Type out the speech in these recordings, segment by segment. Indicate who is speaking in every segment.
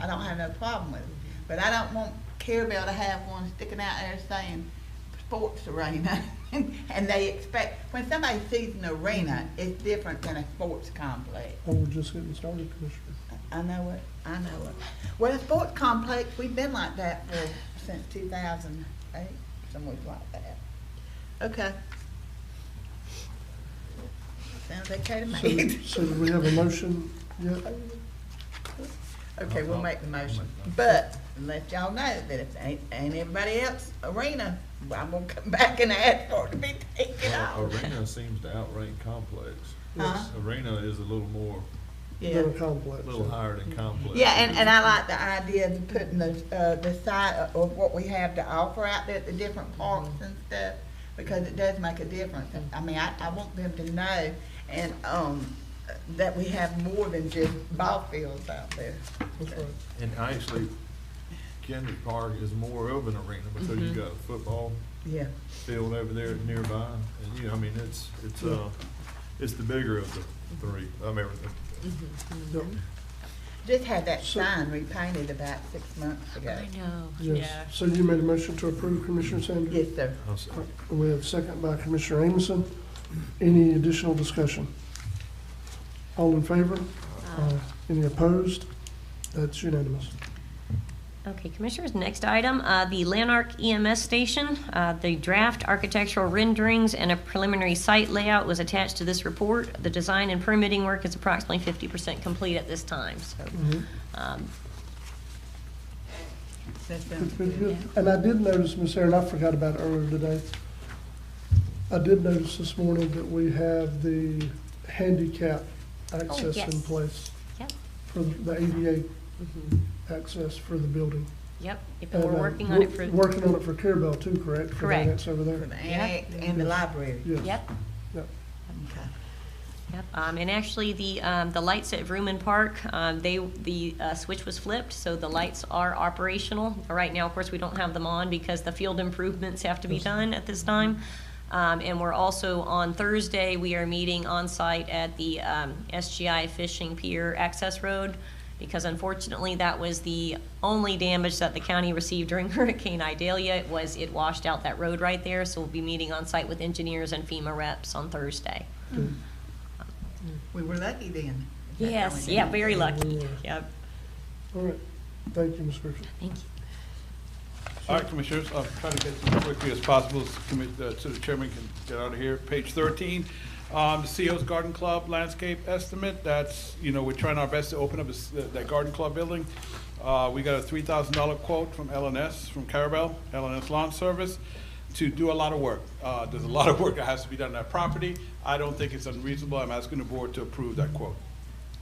Speaker 1: I don't have no problem with it. But I don't want Carabelle to have one sticking out there saying sports arena. And they expect, when somebody sees an arena, it's different than a sports complex.
Speaker 2: Well, we're just getting started, Commissioner.
Speaker 1: I know it, I know it. Well, a sports complex, we've been like that for, since two thousand eight, somewhere like that. Okay. Sounds okay to me.
Speaker 2: So, so do we have a motion yet?
Speaker 1: Okay, we'll make the motion, but let y'all know that if ain't, ain't everybody else arena, I'm gonna come back and ask for it to be taken
Speaker 3: Well,
Speaker 1: off.
Speaker 3: Arena seems to outrank complex.
Speaker 1: Huh?
Speaker 3: Arena is a little more,
Speaker 1: Yeah,
Speaker 2: Little complex.
Speaker 3: a little higher than complex.
Speaker 1: yeah, and, and I like the idea of putting the, uh, the side of- of what we have to offer out there at the different parks and stuff, because it does make a difference. I mean, I, I want them to know and, um, that we have more than just ball fields out there.
Speaker 2: That's right.
Speaker 3: And actually, Kendrick Park is more of an arena because
Speaker 1: Mm-hmm.
Speaker 3: you've got a football
Speaker 1: Yeah,
Speaker 3: field over there nearby. And, you know, I mean, it's, it's, uh, it's the bigger of the three, I mean, the-
Speaker 2: Yep.
Speaker 1: just had that
Speaker 2: So-
Speaker 1: sign repainted about six months ago.
Speaker 4: I know, yeah.
Speaker 2: Yes. So you made a motion to approve, Commissioner Sanders?
Speaker 1: Yes, sir.
Speaker 3: I'm sorry.
Speaker 2: We have a second by Commissioner Amison. Any additional discussion? All in favor? Aye. Any opposed? That's unanimous.
Speaker 5: Uh, Okay, Commissioners, next item, uh, the Lanark EMS Station. Uh, The draft architectural renderings and a preliminary site layout was attached to this report. The design and permitting work is approximately 50% complete at this time, so
Speaker 2: Mhm.
Speaker 5: um,
Speaker 1: That's been
Speaker 2: It's pretty good. And I did notice, Miss Erin, I forgot about it earlier today. I did notice this morning that we have the handicap access in
Speaker 5: Oh, yes.
Speaker 2: place
Speaker 5: Yep.
Speaker 2: for the ADA access for the building.
Speaker 5: yep, if
Speaker 2: Mm-hmm. And,
Speaker 5: we're
Speaker 2: uh,
Speaker 5: working on it
Speaker 2: we're
Speaker 5: for,
Speaker 2: Working on it for Carabel too, correct? For
Speaker 5: Correct.
Speaker 2: that's over
Speaker 1: For
Speaker 2: there?
Speaker 1: the annex and the library.
Speaker 2: Yes.
Speaker 5: yep,
Speaker 1: Okay.
Speaker 5: Yep, um, and actually, the, um, the lights at Vrooman Park, um, they, the, uh, switch was flipped, so the lights are operational. Right now, of course, we don't have them on because the field improvements have to be done at this time. Um, and we're also, on Thursday, we are meeting on site at the, um, SGI Fishing Pier Access Road, because unfortunately, that was the only damage that the county received during Hurricane Idalia, It was it washed out that road right there, so we'll be meeting on site with engineers and FEMA reps on Thursday.
Speaker 1: We were lucky then.
Speaker 5: Yes, yeah, very lucky.
Speaker 2: Yeah.
Speaker 5: Yep,
Speaker 2: All right. Thank you, Ms. Griffin.
Speaker 5: thank you.
Speaker 6: All right, Commissioners, I'll try to get through as quickly as possible so commi- uh, so the chairman can get out of here. Page 13, um, the CO's Garden Club landscape estimate, that's, you know, we're trying our best to open up this- uh, that garden club building. Uh, We got a $3,000 quote from LNS, from Carabel, LNS Lawn Service, to do a lot of work. Uh, There's a lot of work that has to be done on that property. I don't think it's unreasonable. I'm asking the board to approve that quote.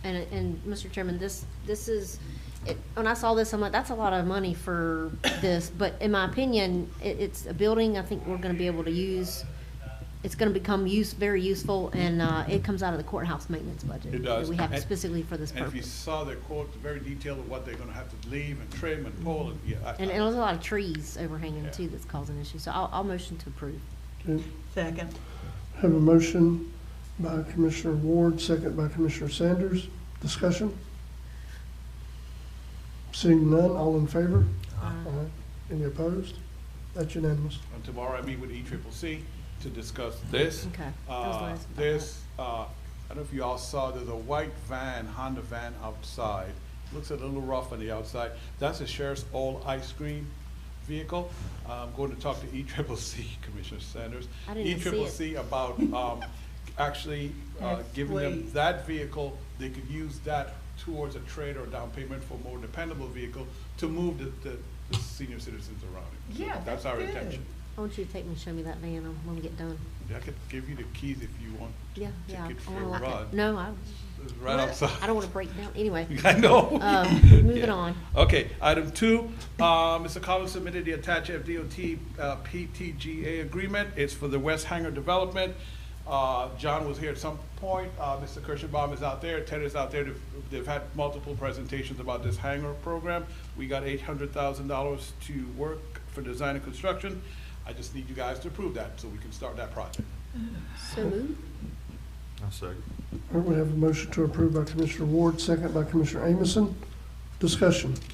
Speaker 4: And, and Mr. Chairman, this, this is, it- when I saw this, I'm like, that's a lot of money for this, but in my opinion, it, it's a building I think we're gonna be able to use. It's gonna become use, very useful, and, uh, it comes out of the courthouse maintenance budget.
Speaker 6: It does.
Speaker 4: That we have
Speaker 6: And-
Speaker 4: specifically for this
Speaker 6: And if you
Speaker 4: purpose.
Speaker 6: saw their quote, the very detail of what they're going to have to leave and trim and pull, and, yeah. I-
Speaker 4: And, and there's a lot of trees overhanging
Speaker 6: Yeah.
Speaker 4: too that's causing issues, so I'll, I'll motion to approve.
Speaker 2: Okay.
Speaker 1: Second.
Speaker 2: Have a motion by Commissioner Ward, second by Commissioner Sanders. Discussion? Seeing none, all in favor? Aye. Any opposed? That's unanimous.
Speaker 6: And tomorrow I meet with E triple C to discuss this.
Speaker 4: Okay. That was
Speaker 6: Uh,
Speaker 4: nice.
Speaker 6: This, uh, I don't know if you all saw, there's a white van, Honda van outside. Looks a little rough on the outside. That's the sheriff's old ice cream vehicle. I'm going to talk to E triple C, Commissioner Sanders.
Speaker 4: I didn't even see it.
Speaker 6: ECCC about, um, actually, uh, giving them
Speaker 1: Please.
Speaker 6: that vehicle, they could use that towards a trade or down payment for a more dependable vehicle to move the, the, the senior citizens around it. So
Speaker 1: Yeah,
Speaker 6: That's our
Speaker 1: that's good.
Speaker 6: intention.
Speaker 4: I want you to take me and show me that van, I'm, when we get done.
Speaker 6: I could give you the keys if you want.
Speaker 4: Yeah, yeah.
Speaker 6: Take it
Speaker 4: I
Speaker 6: for a
Speaker 4: wanna lock it.
Speaker 6: run.
Speaker 4: No, I,
Speaker 6: It's Right outside.
Speaker 4: I don't wanna break down, anyway.
Speaker 6: I know.
Speaker 4: Um, moving
Speaker 6: Yeah.
Speaker 4: on.
Speaker 6: Okay, item two, uh, Mr. Collins submitted the attached FDOT uh, PTGA agreement. It's for the West Hanger development. Uh, John was here at some point. Uh, Mr. Kirschenbaum is out there. Ted is out there. They've- They've had multiple presentations about this hangar program. We got eight hundred thousand dollars to work for design and construction. I just need you guys to approve that so we can start that project.
Speaker 4: So moved.
Speaker 3: I second.
Speaker 2: All right, we have a motion to approve by Commissioner Ward, second by Commissioner Amison. Discussion?